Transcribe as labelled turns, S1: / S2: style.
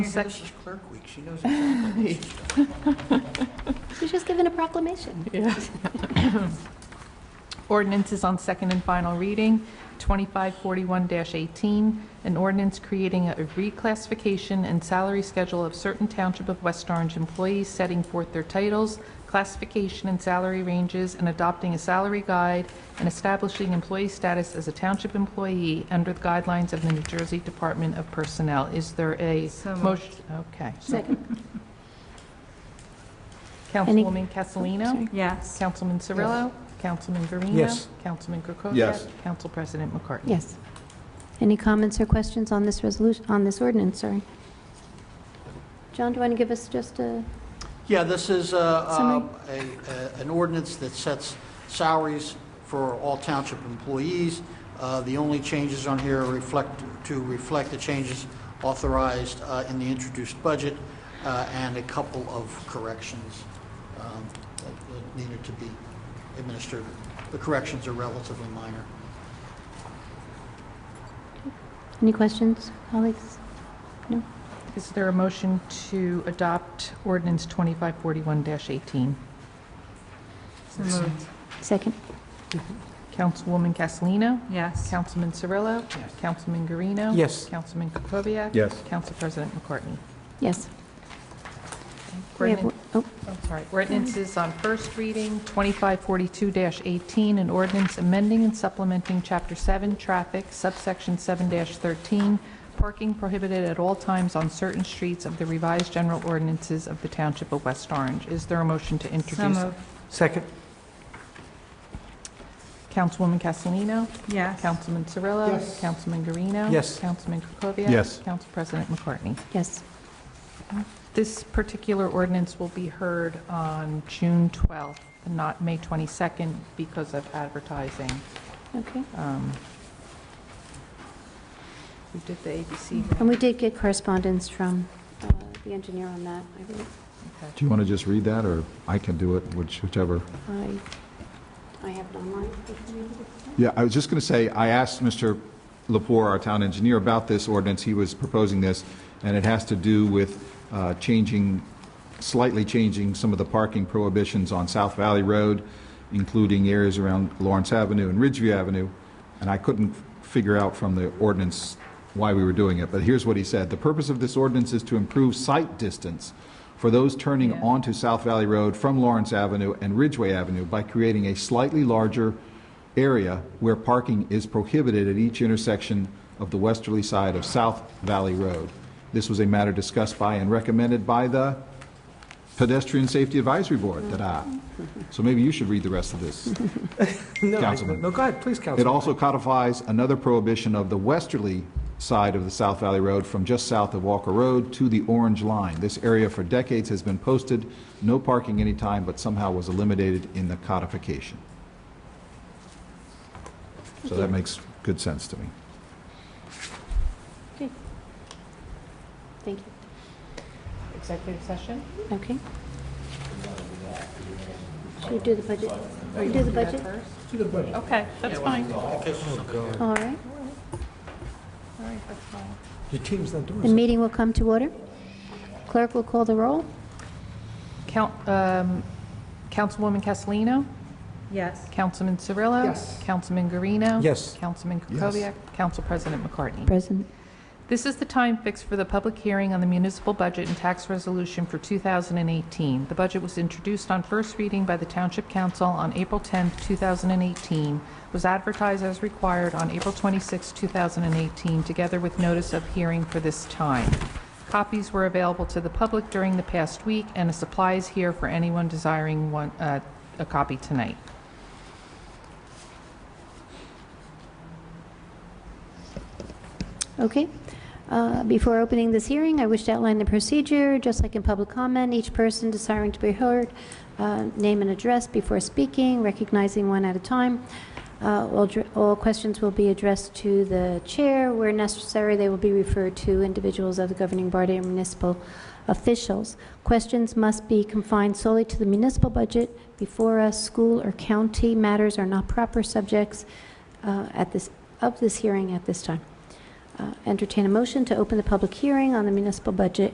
S1: Sec-
S2: She's clerk week, she knows exactly what she's doing.
S3: She's just given a proclamation.
S1: Ordinances on second and final reading, 2541-18, an ordinance creating a reclassification and salary schedule of certain Township of West Orange employees, setting forth their titles, classification and salary ranges, and adopting a salary guide, and establishing employee status as a Township employee under the guidelines of the New Jersey Department of Personnel. Is there a motion? Okay.
S3: Second. Any-
S1: Councilwoman Castellino?
S4: Yes.
S1: Councilman Cirillo? Councilman Verena?
S2: Yes.
S1: Councilman Krokoviac?
S5: Yes.
S1: Council President McCartney?
S3: Yes. Any comments or questions on this resolution, on this ordinance, sorry? John, do you want to give us just uh, a,
S2: Yeah, this is uh, uh,
S3: Summary.
S2: a- a- an ordinance that sets salaries for all township employees. Uh, The only changes on here reflect, to reflect the changes authorized uh, in the introduced budget uh, and a couple of corrections um, that needed to be administered. The corrections are relatively minor.
S3: any questions, colleagues? No?
S1: Is there a motion to adopt ordinance 2541-18?
S4: So moved.
S3: Second?
S1: Councilwoman Castellino?
S4: Yes.
S1: Councilman Cirillo?
S2: Yes.
S1: Councilman Guarino?
S2: Yes.
S1: Councilman Krokoviac?
S5: Yes.
S1: Council President McCartney?
S3: Yes. We have-
S1: Ordinance-
S3: Oh,
S1: I'm sorry. Ordinances on first reading, 2542-18, an ordinance amending and supplementing Chapter 7 Traffic, subsection 7-13, parking prohibited at all times on certain streets of the revised general ordinances of the Township of West Orange. Is there a motion to
S4: So
S1: introduce?
S4: moved.
S2: Second.
S1: Councilwoman Castellino?
S4: Yes.
S1: Councilman Cirillo?
S2: Yes.
S1: Councilman Guarino?
S2: Yes.
S1: Councilman Krokoviac?
S5: Yes.
S1: Council President McCartney?
S3: yes.
S1: This particular ordinance will be heard on June 12th, and not May 22nd, because of advertising.
S3: Okay.
S1: Um, We did the ABC.
S3: And we did get correspondence from uh, the engineer on that, I believe.
S1: Okay.
S5: Do you want to just read that, or I can do it, which- whichever?
S3: I, I have it online. If you need it.
S5: Yeah, I was just going to say, I asked Mr. Lepore, our town engineer, about this ordinance. He was proposing this, and it has to do with uh, changing, slightly changing some of the parking prohibitions on South Valley Road, including areas around Lawrence Avenue and Ridgeview Avenue. And I couldn't figure out from the ordinance why we were doing it, but here's what he said. "The purpose of this ordinance is to improve sight distance for those turning onto South Valley Road from Lawrence Avenue and Ridgeway Avenue by creating a slightly larger area where parking is prohibited at each intersection of the westerly side of South Valley Road. This was a matter discussed by and recommended by the Pedestrian Safety Advisory Board. Ta-da. So maybe you should read the rest of this.
S6: No, I-
S5: Councilman.
S6: No, go ahead, please,
S5: It
S6: Councilman.
S5: also codifies another prohibition of the westerly side of the South Valley Road from just south of Walker Road to the orange line. This area for decades has been posted, no parking anytime, but somehow was eliminated in the codification. So that makes good sense to me.
S3: Okay. Thank you.
S1: Executive session?
S3: Okay. Should we do the budget? Or do the budget?
S1: Okay, that's fine. All
S3: All right.
S1: right, that's fine.
S6: Your team's not doing
S3: The
S6: so
S3: meeting will come to order. Clerk will call the roll.
S1: Count- um, Councilwoman Castellino?
S4: Yes.
S1: Councilman Cirillo?
S6: Yes.
S1: Councilman Guarino?
S6: Yes.
S1: Councilman Krokoviac? Council President McCartney?
S3: Present.
S1: This is the time fixed for the public hearing on the municipal budget and tax resolution for 2018. The budget was introduced on first reading by the Township Council on April 10, 2018, was advertised as required on April 26, 2018, together with notice of hearing for this time. Copies were available to the public during the past week, and a supply is here for anyone desiring one, uh, a copy tonight.
S3: Okay. Uh, Before opening this hearing, I wish to outline the procedure. Just like in public comment, each person desiring to be heard, uh, name and address before speaking, recognizing one at a time. Uh, All dr- all questions will be addressed to the chair. Where necessary, they will be referred to individuals of the governing body and municipal officials. Questions must be confined solely to the municipal budget. Before us, school or county matters are not proper subjects uh, at this, of this hearing at this time. Uh, Entertain a motion to open the public hearing on the municipal budget